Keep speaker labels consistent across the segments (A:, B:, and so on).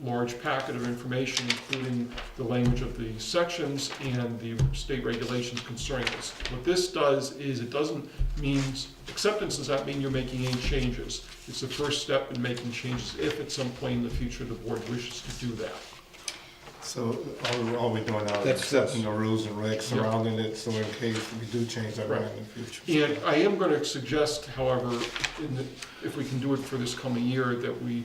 A: large packet of information, including the language of the sections and the state regulations concerning this. What this does is it doesn't mean, acceptance does not mean you're making any changes. It's the first step in making changes if at some point in the future the board wishes to do that.
B: So all, all we're doing now is
C: That's-
B: accepting the rules and regs
A: Yeah.
B: surrounding it, so in case we do change our mind in the future.
A: And I am going to suggest, however, in the, if we can do it for this coming year, that we,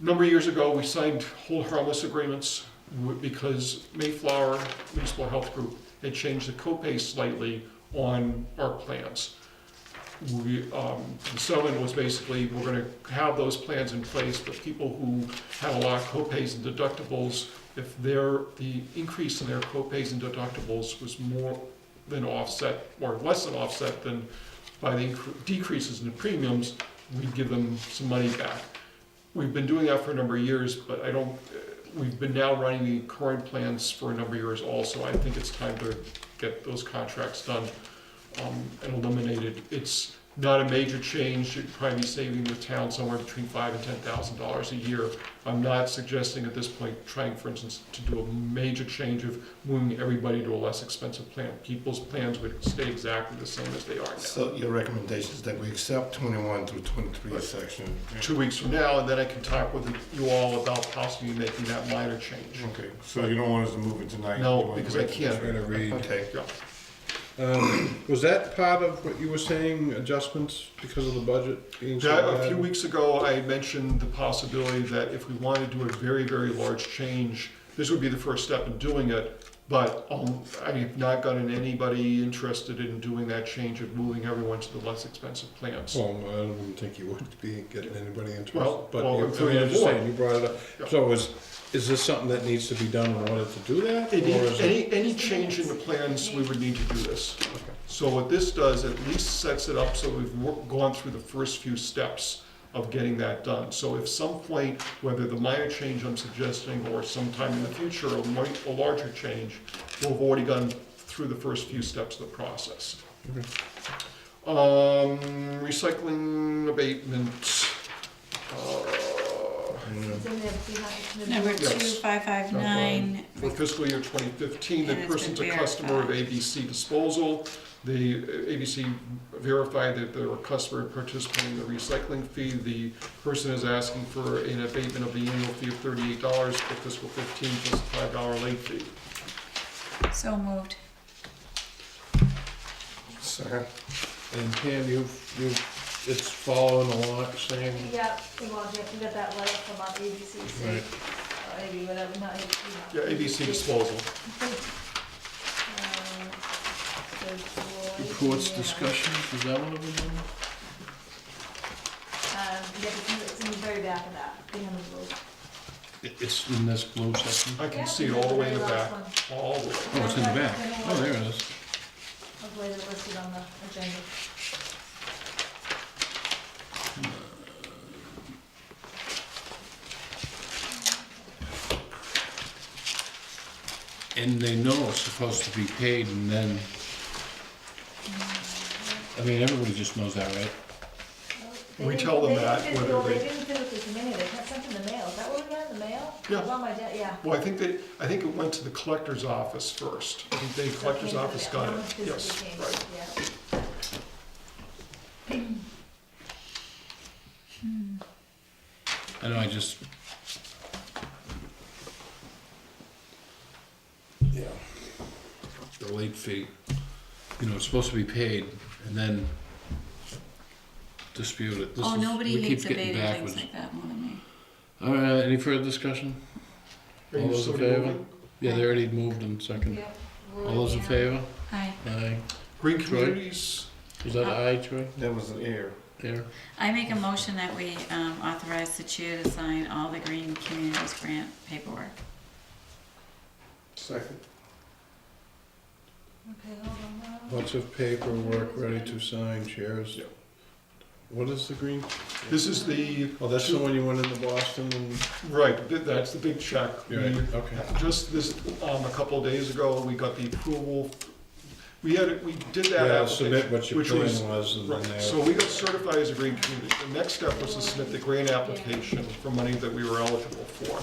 A: a number of years ago, we signed whole harmless agreements w- because Mayflower Municipal Health Group had changed the copay slightly on our plans. We, um, the settlement was basically, we're going to have those plans in place, but people who have a lot of copays and deductibles, if their, the increase in their copays and deductibles was more, than offset, or less than offset than by the incre- decreases in the premiums, we give them some money back. We've been doing that for a number of years, but I don't, uh, we've been now running the current plans for a number of years also. I think it's time to get those contracts done um, and eliminated. It's not a major change, it'd probably be saving the town somewhere between five and ten thousand dollars a year. I'm not suggesting at this point trying, for instance, to do a major change of moving everybody to a less expensive plan. People's plans would stay exactly the same as they are now.
B: So your recommendation is that we accept twenty-one through twenty-three
A: Right.
B: section?
A: Two weeks from now, and then I can talk with you all about possibly making that minor change.
B: Okay, so you don't want us to move it tonight?
A: No,
B: You want to
A: because I
B: wait until-
A: can't.
B: Okay,
A: Yeah.
C: Um, was that part of what you were saying, adjustments because of the budget being so
A: Yeah, a
C: bad?
A: few weeks ago, I mentioned the possibility that if we wanted to do a very, very large change, this would be the first step in doing it, but um, I have not gotten anybody interested in doing that change of moving everyone to the less expensive plans.
C: Well, I don't think you would be getting anybody
A: Well,
C: interested, but
A: well,
C: you- I
A: including
C: mean,
A: the
C: I'm just
A: board.
C: saying, you brought it
A: Yeah.
C: up. So is, is this something that needs to be done in order to do that?
A: Any,
C: or is it-
A: any, any change in the plans, we would need to do this. So what this does, at least sets it up so we've wor- gone through the first few steps of getting that done. So if some point, whether the minor change I'm suggesting or sometime in the future, a mi- a larger change, we'll have already gone through the first few steps of the process. Um, recycling abatement, uh,
B: Mm,
D: It's in there behind the-
E: Number two,
A: Yes.
E: five, five, nine,
A: For fiscal year 2015, the
E: And it's
A: person's a
E: been
A: customer of
E: verified.
A: ABC Disposal. The uh, ABC verified that they were a customer and participating in the recycling fee. The person is asking for an abatement of the annual fee of $38 for fiscal 15 plus a $5 late fee.
E: so moved.
B: Second,
C: And Pam, you've, you've, it's following along the same,
D: Yep, well, you have to get that letter from our ABC,
C: Right.
D: or AB, whatever, not ABC.
A: Yeah, ABC Disposal.
D: Reports, discussions, is that one of them? Um, yeah, it's in the- it's in the very back of that, behind the blue.
C: it- it's in this blue section?
A: I
D: Yeah,
A: can see it
D: it's
A: all the way in the
D: very
A: back,
D: last
A: all the way.
C: Oh, it's in the back.
D: That's
C: Oh, there it is.
D: Hopefully it's listed on the agenda.
C: And they know it's supposed to be paid and then, I mean, everybody just knows that, right?
D: They
A: We
D: didn't-
A: tell them
D: they
A: that,
D: didn't-
A: whether
D: well,
A: they-
D: didn't put it this minute, they sent it in the mail, is that what we got in the mail?
A: Yeah.
D: Well, my dad, yeah.
A: Well, I think that, I think it went to the collector's office first. I think the collector's
D: Okay,
A: office
D: yeah,
A: got
D: no one
A: it,
D: physically
A: yes,
D: came,
A: right.
D: yeah.
C: I know, I just. Yeah. The late fee, you know, it's supposed to be paid and then dispute it. This
E: Oh,
C: is-
E: nobody
C: we keep
E: hates
C: getting
E: abating
C: backwards.
E: things like that more than me.
C: All right, any further discussion?
A: Are
C: All
A: you
C: those
A: still
C: in favor?
A: moving?
C: Yeah, they already moved and second.
D: Yep.
C: All those in favor?
E: Aye.
C: Aye.
A: Green
C: Troy?
A: Communities,
C: Was that aye, Troy?
B: that was an error.
C: There?
E: I make a motion that we um, authorize the chair to sign all the Green Communities Grant paperwork.
B: Second.
D: Okay, hold on. now.
C: Lots of paperwork ready to sign, chairs.
A: Yep.
C: What is the green?
A: this is the,
C: Oh, that's the one you went into Boston and.
A: right, th- that's the big check. We-
C: Okay.
A: Just this, um, a couple of days ago, we got the approval, we had, we did that
C: Yeah,
A: application.
C: submit what your
A: which
C: plan
A: was-
C: was and then
A: Right,
C: they.
A: so we got certified as a green community. The next step was to submit the grant application for money that we were eligible for.